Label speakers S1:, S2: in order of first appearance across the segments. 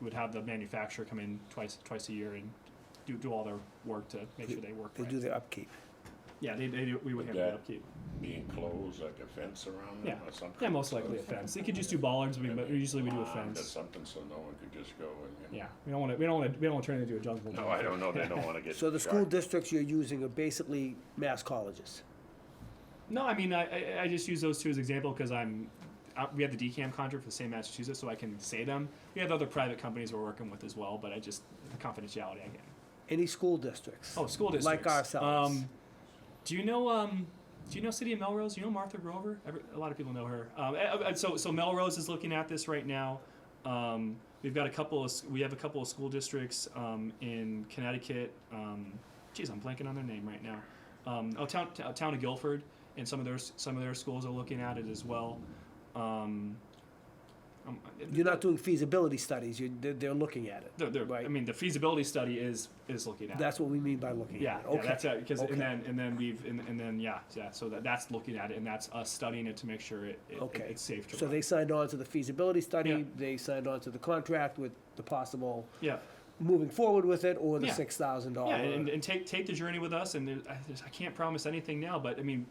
S1: would have the manufacturer come in twice, twice a year and do, do all their work to make sure they work
S2: They do
S1: right.
S2: their upkeep.
S1: Yeah, they, they, do- we would
S3: Would
S1: handle the
S3: that-
S1: upkeep.
S3: be enclosed, like a fence around it
S1: Yeah.
S3: or something?
S1: Yeah, most likely a fence. They could just do bollards, I mean, but usually we do a
S3: Pond Or
S1: fence.
S3: something, so no one could just go and.
S1: Yeah, we don't wanna, we don't wanna, we don't wanna turn it into a jungle.
S3: No, I don't know, they don't wanna get.
S2: So the school
S3: dark.
S2: districts you're using are basically mass colleges.
S1: No, I mean, I, I, I just use those two as example because I'm, uh, we have the DCAM contract for the same Massachusetts, so I can say them. We have other private companies we're working with as well, but I just, the confidentiality again.
S2: Any school districts.
S1: Oh, school
S2: Like
S1: districts.
S2: ourselves.
S1: Um, do you know, um, do you know City of Melrose? Do you know Martha Grover? Every, a lot of people know her. Um, and- and so, so Melrose is looking at this right now. Um, we've got a couple of, s- we have a couple of school districts, um, in Connecticut. Um, geez, I'm blanking on their name right now. Um, oh, town, t- uh, town of Guilford and some of their, s- some of their schools are looking at it as well. Um, um,
S2: You're not doing feasibility studies, you, they're, they're looking at it.
S1: they're, they're,
S2: right.
S1: I mean, the feasibility study is, is looking at it.
S2: That's what we mean by looking
S1: Yeah,
S2: at it.
S1: yeah,
S2: Okay.
S1: that's uh, it. Because
S2: Okay.
S1: and then and then we've and, and then yeah, yeah. So that, that's looking at it, and that's us studying it to make sure it, it,
S2: Okay.
S1: it's safe to.
S2: So
S1: run.
S2: they signed on to the feasibility
S1: Yeah.
S2: study, they signed on to the contract with the possible
S1: yeah,
S2: moving forward with it or the
S1: Yeah.
S2: six thousand dollar.
S1: yeah, and, and take take the journey with us. And there, I, there's, I can't promise anything now, but I mean,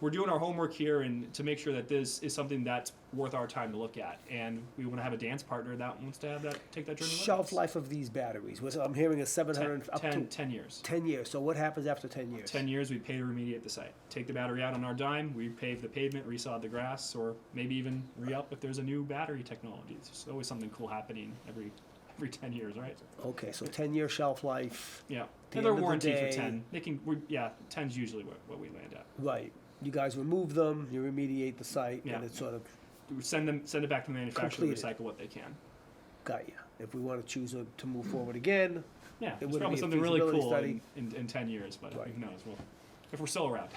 S1: we're doing our homework here and to make sure that this is something that's worth our time to look at. And we want to have a dance partner that wants to have that take that journey.
S2: Shelf
S1: with us.
S2: life of these batteries was, I'm hearing a seven
S1: Ten,
S2: hundred, up to
S1: ten, 10 years.
S2: ten years. So what happens after ten years?
S1: 10 years, we pay to remediate the site. Take the battery out on our dime, we pave the pavement, resod the grass, or maybe even re-up if there's a new battery technology. There's always something cool happening every every 10 years, right?
S2: Okay, so ten year shelf life,
S1: Yeah.
S2: The
S1: and their
S2: end of the
S1: warranty
S2: day-
S1: for 10. They can, we, yeah, 10's usually what, what we land at.
S2: right? You guys remove them, you remediate the site,
S1: Yeah.
S2: and it sort of
S1: We Send them, send it back to the manufacturer, to
S2: Completed.
S1: recycle what they can.
S2: got you. If we want to choose a- to move forward again,
S1: Yeah, there's
S2: wouldn't be
S1: probably
S2: a
S1: something really
S2: feasibility
S1: cool in, in,
S2: study.
S1: in 10 years, but
S2: Right.
S1: who knows? Well, if we're still around.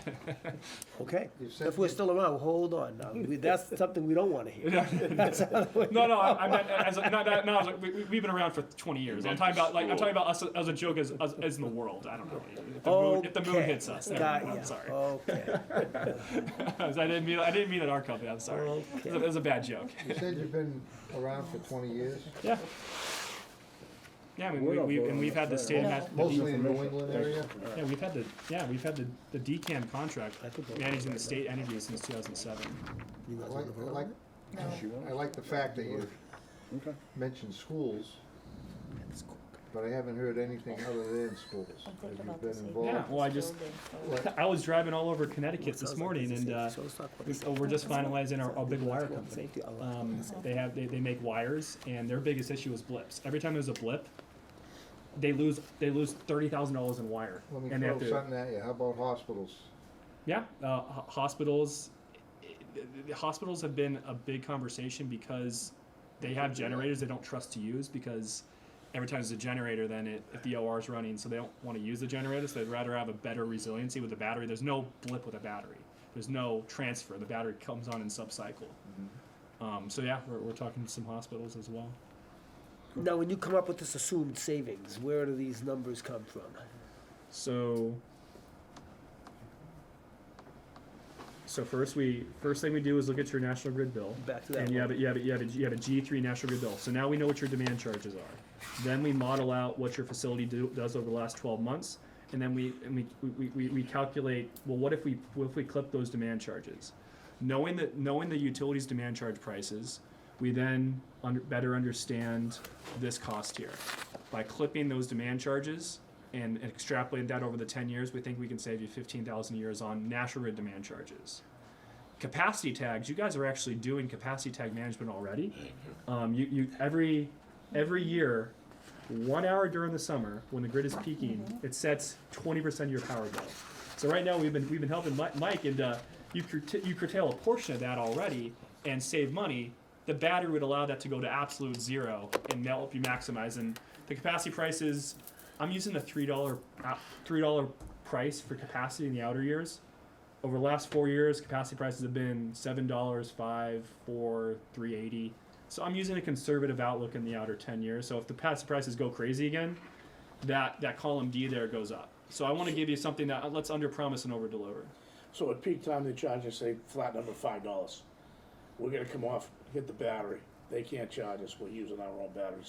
S2: okay.
S4: You said
S2: If we're
S4: you-
S2: still around, well, hold on. Now. We- That's something we don't want to hear.
S1: No, no, I, I'm not. As, a- not, not, no, I was like, we, we- we've been around for 20 years. I'm talking about like I'm talking about us as a joke, as, as, as in the world. I don't know. If the, moon, if the moon
S2: Okay.
S1: hits us, there we
S2: Got
S1: go.
S2: ya.
S1: I'm sorry.
S2: Okay.
S1: I didn't mean. I didn't mean at our company. I'm sorry. It was a- it was a bad joke.
S4: You said you've been around for twenty years,
S1: Yeah. Yeah, I mean,
S5: We're
S1: we,
S5: not
S1: we, and
S5: voting
S1: we've
S5: on
S1: had the
S5: this,
S1: state of
S5: right?
S1: Mass. the D-
S4: mostly in New England area.
S1: Yeah, we've had the yeah we've had the the DCAM contract
S2: I could vote.
S1: managing the state energy since 2007.
S2: You
S4: I
S2: guys
S4: like,
S2: wanna
S4: I
S2: vote?
S4: like,
S5: She won't?
S4: I like the fact that you
S5: Okay.
S4: mentioned schools, but I haven't heard anything other than schools.
S6: I'm
S4: Have
S6: thinking
S4: you
S6: about
S4: been
S6: the same.
S4: involved?
S1: Yeah, well, I just- I was driving all over Connecticut
S2: Sounds
S1: this
S2: like
S1: morning,
S2: it's
S1: and
S2: a
S1: uh,
S2: safety. So let's talk about
S1: we-
S2: this.
S1: oh, we're just finalizing our, our big wire
S2: Let's go on
S1: company.
S2: safety. I'll-
S1: Um, they have they, they make wires, and their biggest issue is blips. Every time there's a blip, they lose they lose thirty thousand dollars in wire,
S4: Let me
S1: and they have
S4: throw
S1: to
S4: something at you, how about hospitals?
S1: yeah uh, ho- hospitals. The- the- the Hospitals have been a big conversation because they have generators they don't trust to use because every time there's a generator, then it, if the OR is running, so they don't want to use the generator, so they'd rather have a better resiliency with the battery. There's no blip with a battery. There's no transfer. The battery comes on in subcycle. Um, so yeah, we're, we're talking to some hospitals as well.
S2: Now, when you come up with this assumed savings, where do these numbers come from?
S1: So So first we first thing we do is look at your national grid bill.
S2: Back to that
S1: And you
S2: one.
S1: have a, you have a, you have a, you have a G three national grid bill. So now we know what your demand charges are. Then we model out what your facility do, does over the last twelve months. And then we, and we, we- we, we, we calculate, well, what if we, what if we clip those demand charges? Knowing that, knowing the utilities demand charge prices, we then under, better understand this cost here. By clipping those demand charges and extrapolating that over the ten years, we think we can save you fifteen thousand years on national grid demand charges capacity tags. You guys are actually doing capacity tag management already. Um, you, you every every year, one hour during the summer when the grid is peaking, it sets twenty percent of your power bill. So right now we've been we've been helping Mi- Mike and uh, you curta- you curtail a portion of that already and save money. The battery would allow that to go to absolute zero, and that'll help you maximize. And the capacity prices, I'm using a three dollar uh, three dollar price for capacity in the outer years over the last four years, capacity prices have been seven dollars, five, four, three eighty. So I'm using a conservative outlook in the outer ten years. So if the capacity prices go crazy again, that that column D there goes up. So I want to give you something that let's under promise and over deliver.
S5: So at peak time, they charge us, say, flat number five dollars. We're gonna come off, hit the battery. They can't charge us, we're using our own batteries.